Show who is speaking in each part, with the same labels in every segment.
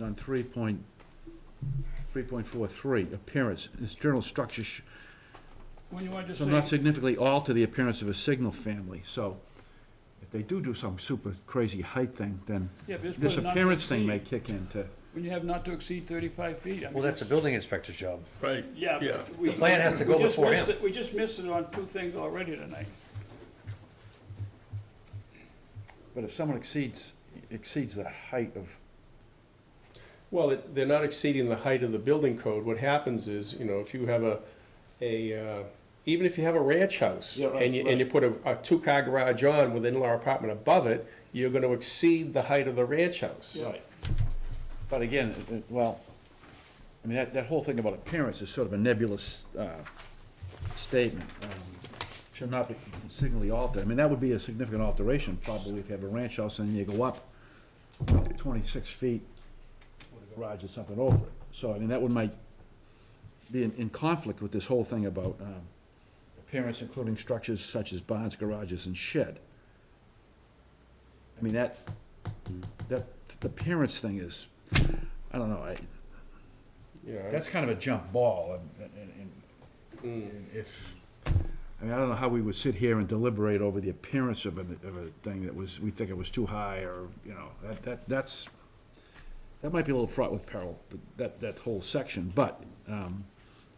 Speaker 1: on three point, three point four three, appearance, external structure sh-
Speaker 2: When you want to
Speaker 1: shall not
Speaker 2: just say,
Speaker 1: significantly alter the appearance of a signal family, so if they do do some super crazy height thing, then
Speaker 2: yeah, but just put
Speaker 1: this
Speaker 2: it not to
Speaker 1: appearance thing may
Speaker 2: exceed.
Speaker 1: kick in to,
Speaker 2: When you have not to exceed thirty-five feet, I mean.
Speaker 3: Well, that's a building inspector's job.
Speaker 4: Right,
Speaker 2: Yeah.
Speaker 4: Yeah.
Speaker 2: but we-
Speaker 3: The plan has to
Speaker 2: we
Speaker 3: go
Speaker 2: just
Speaker 3: before
Speaker 2: missed
Speaker 3: him.
Speaker 2: it- We just missed it on two things already tonight.
Speaker 1: but if someone exceeds, exceeds the height of,
Speaker 4: Well, it- they're not exceeding the height of the building code. What happens is, you know, if you have a, a, uh, even if you have a ranch house
Speaker 1: Yeah, right,
Speaker 4: and you, and you put a, a two-car garage on with an in-law apartment above it, you're gonna exceed the height of the ranch house.
Speaker 2: Right.
Speaker 1: but again, it- it- well, I mean, that, that whole thing about appearance is sort of a nebulous, uh, statement. um, Shall not be significantly altered, I mean, that would be a significant alteration, probably if you have a ranch house and you go up twenty-six feet, garage or something over it, so, I mean, that would might be in, in conflict with this whole thing about, um, appearance including structures such as barns, garages, and shed. I mean, that, that, the appearance thing is, I don't know, I,
Speaker 4: You know,
Speaker 1: that's kind of a jump ball, and, and- and, and if, I mean, I don't know how we would sit here and deliberate over the appearance of a, of a thing that was, we think it was too high, or, you know, that, that, that's, that might be a little fraught with peril, but that, that whole section, but, um,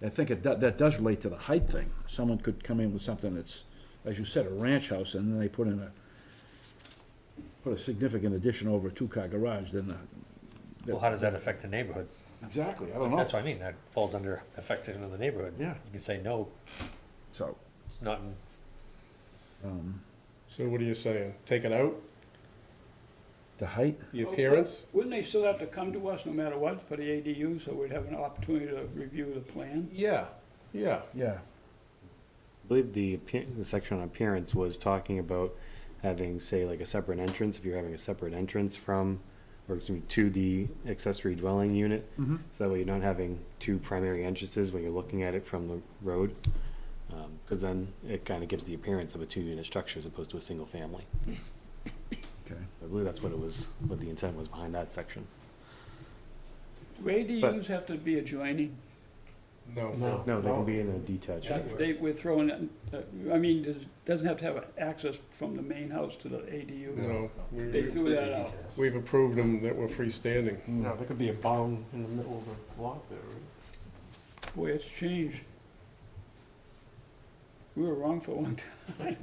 Speaker 1: I think it, that, that does relate to the height thing. Someone could come in with something that's, as you said, a ranch house, and then they put in a, put a significant addition over a two-car garage, then the.
Speaker 3: Well, how does that affect the neighborhood?
Speaker 1: Exactly, I don't know,
Speaker 3: That's what I mean, that falls under affecting the neighborhood.
Speaker 1: Oh. Yeah.
Speaker 3: You can say, no,
Speaker 1: so.
Speaker 3: it's not, in-
Speaker 4: So what are you saying? Take it out,
Speaker 1: The height?
Speaker 4: the appearance?
Speaker 2: Wouldn't they still have to come to us no matter what for the ADU, so we'd have an opportunity to review the plan?
Speaker 4: Yeah, yeah.
Speaker 1: Yeah.
Speaker 5: I believe the, appear- the section on appearance was talking about having, say, like a separate entrance, if you're having a separate entrance from, or excuse me, to the accessory dwelling unit. So that way you're not having two primary entrances when you're looking at it from the road. Um 'cause cause then it kinda gives the appearance of a two-unit structure as opposed to a single family.
Speaker 1: Okay.
Speaker 5: I believe that's what it was, what the intent was behind that section.
Speaker 2: Do ADUs have to be adjoining?
Speaker 4: No.
Speaker 5: No, they can be in a detached.
Speaker 2: That- They, we're throwing, that- that- I mean, it doesn't have to have access from the main house to the ADU.
Speaker 4: No. we-
Speaker 2: They threw that out.
Speaker 4: We've approved them that we're freestanding.
Speaker 6: No, there could be a barn in the middle of the lot there, right?
Speaker 2: Boy, it's changed. We were wrong for one time.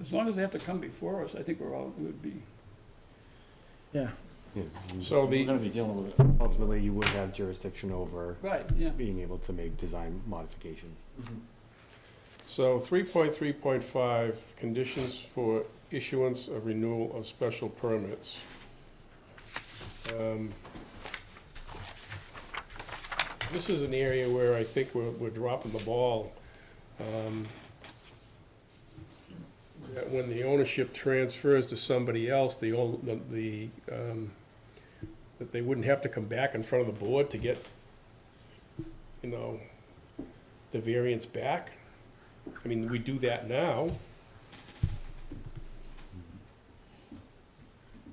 Speaker 2: As long as they have to come before us, I think we're all, would be,
Speaker 1: Yeah.
Speaker 5: Yeah.
Speaker 4: So
Speaker 5: We're
Speaker 4: the,
Speaker 5: gonna be dealing with it. Ultimately, you would have jurisdiction over
Speaker 2: right, yeah.
Speaker 5: being able to make design modifications.
Speaker 4: so three point three point five, conditions for issuance of renewal of special permits. Um, This is an area where I think we're, we're dropping the ball. um, That when the ownership transfers to somebody else, the, old- the, the, um, that they wouldn't have to come back in front of the board to get, you know, the variance back. I mean, we do that now.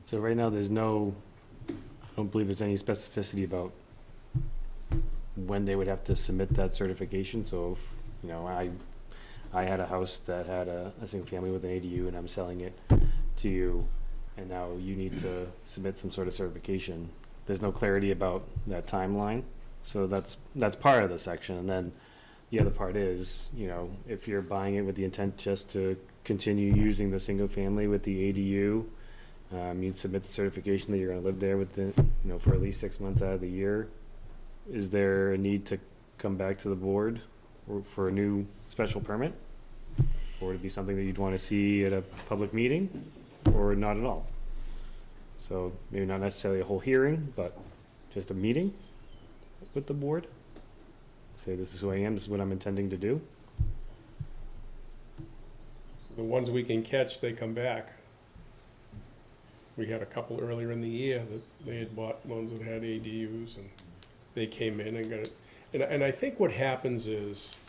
Speaker 5: So right now, there's no, I don't believe there's any specificity about when they would have to submit that certification, so if, you know, I, I had a house that had a, a single family with an ADU and I'm selling it to you, and now you need to submit some sort of certification. There's no clarity about that timeline, so that's, that's part of the section, and then the other part is, you know, if you're buying it with the intent just to continue using the single family with the ADU, um, you submit the certification that you're gonna live there within, you know, for at least six months out of the year. Is there a need to come back to the board or for a new special permit? Or would it be something that you'd wanna see at a public meeting, or not at all? So maybe not necessarily a whole hearing, but just a meeting with the board? Say, this is who I am, this is what I'm intending to do?
Speaker 4: The ones we can catch, they come back. We had a couple earlier in the year that they had bought ones that had ADUs and they came in and got it. And, and I think what happens is,